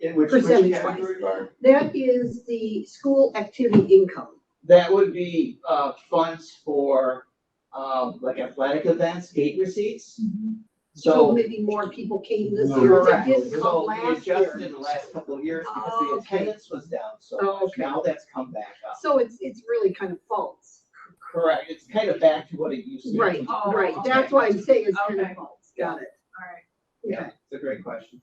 In which, which Percentage-wise. category, Barb? That is the school activity income. That would be, uh, funds for, um, like athletic events, gate receipts, Mm-hmm. so. Maybe more people came this No. year that Correct, didn't come so we last adjusted year. in the last couple of years because Oh, the okay. attendance was down, Oh, so much. okay. now that's come back up. So it's, it's really kind of false. Correct, it's kind of back to what it used to be. Right, Oh, right. okay. That's why I'm saying it's kind of Okay. false. Got it. Alright, Yeah, Okay. it's a great question.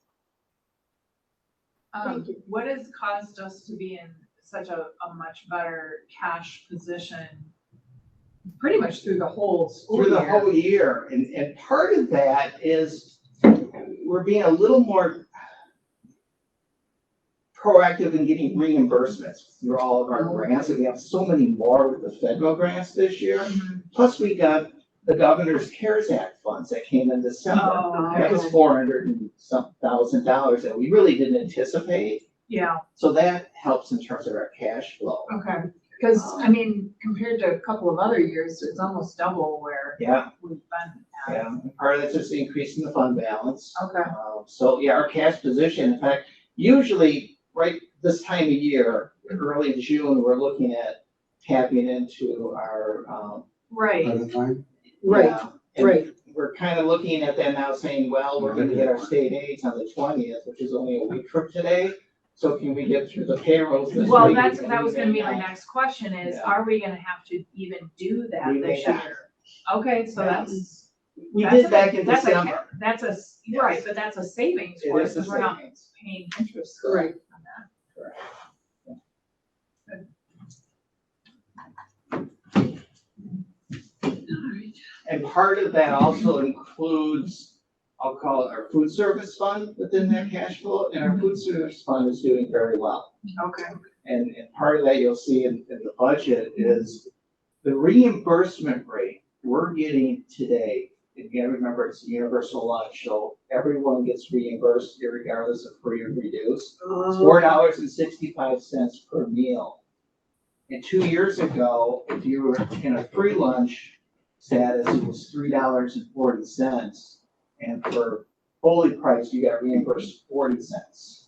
um, Thank you. what has caused us to be in such a, a much better cash position? Pretty much through the whole school Through the year. whole year, and, and part of that is we're being a little more proactive in getting reimbursements through all of our grants, and we have so many more with the federal grants this year. Mm-hmm. Mhm. Plus, we got the governor's CARES Act funds that came in December. That Oh, was four hundred and some thousand dollars that we really didn't anticipate, yeah, so that helps in terms of our cash flow. okay, cause Oh. I mean, compared to a couple of other years, it's almost double where Yeah, we've been at. yeah, part of that's just increasing the fund balance. Okay, Um, So, yeah, our cash position, in fact, usually, right this time of year, early in June, we're looking at tapping into our, um. by right, the time. Right, yeah, and right. We're kind of looking at that now saying, well, we're gonna get our state aids on the twentieth, which is only a week from today. So can we get through the payrolls this week? well, that's, that And was gonna be my then, uh, next question is, Yeah. are we gonna have to even do that We may this not. year? Okay, so Yeah. that's. We That's a- did back in that's a ca- December. That's a, s- Yes. right, but that's a savings It for us, is the because we're not savings. paying interest uh, on Right. that. Correct. And part of that also includes, I'll call it our food service fund within that cash flow, and our food service fund is doing very well. Okay, And, and part of that you'll see in, in the budget is the reimbursement rate we're getting today. If you remember, it's a universal lunch, so everyone gets reimbursed regardless of free or reduced. It's Oh. four dollars and sixty-five cents per meal. And two years ago, if you were in a free lunch status, it was three dollars and forty cents. And for fully priced, you got reimbursed forty cents.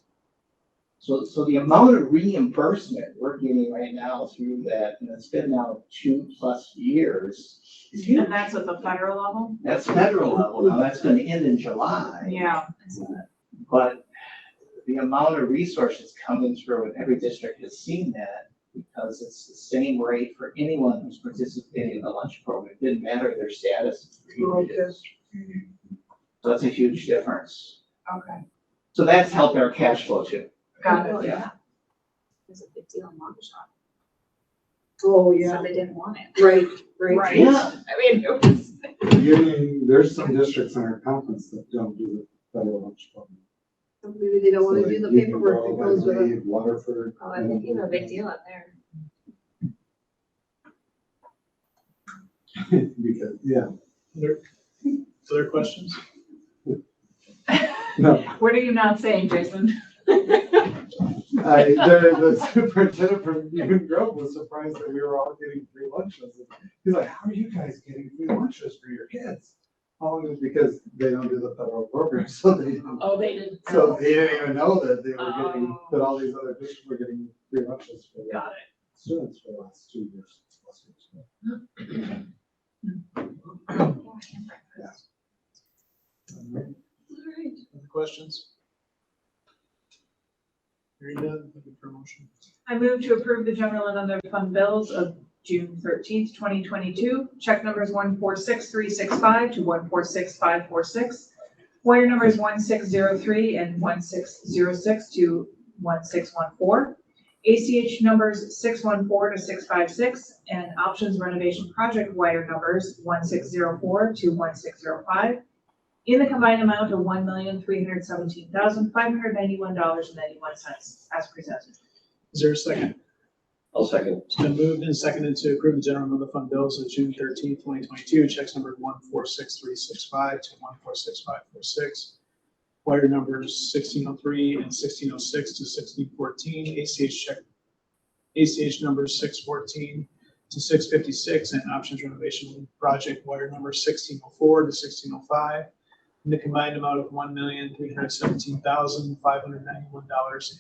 So, so the amount of reimbursement we're getting right now through that, and it's been now two plus years. is huge. and that's at the federal level? That's federal level, now that's gonna end in July. Yeah. But the amount of resources coming through, and every district has seen that, because it's the same rate for anyone who's participating in the lunch program, it didn't matter their status. So that's a huge difference. Okay, So that's helped our cash flow too. got it. Yeah. was a big deal in Waukesha, so Oh, yeah. they didn't want it. Right, right. Right. Yeah, I mean, it was. You- There's some districts in our conference that don't do the federal lunch program. Maybe they don't want to do the So, like, you can paperwork go that goes with it. and leave Waterford. Oh, I think you have a big deal up there. Because, yeah, Other questions? no, What are you not saying, Jason? I, the, the superintendent from Union Grove was surprised that we were all getting free lunches. He's like, how are you guys getting free lunches for your kids? Oh, it was because they don't do the federal program, so they don't. Oh, they didn't. So they didn't even know that they were getting, Oh. that all these other districts were getting free lunches for their Got students for the last two years. last year's. Um, Other questions? Hearing none, looking for a motion. I move to approve the general and other fund bills of June thirteenth, twenty twenty-two. Check numbers one four six three six five to one four six five four six. Wire numbers one six zero three and one six zero six to one six one four. ACH numbers six one four to six five six and options renovation project wire numbers one six zero four to one six zero five. In the combined amount of one million three hundred seventeen thousand five hundred ninety-one dollars and ninety-one cents as presented. Is there a second? I'll second. It's been moved and seconded to approve the general and other fund bills of June thirteenth, twenty twenty-two, checks numbered one four six three six five to one four six five four six. Wire numbers sixteen oh three and sixteen oh six to sixteen fourteen, ACH check, ACH number six fourteen to six fifty-six, and options renovation project wire number sixteen oh four to sixteen oh five. in the combined amount of one million, three hundred seventeen thousand, five hundred ninety-one dollars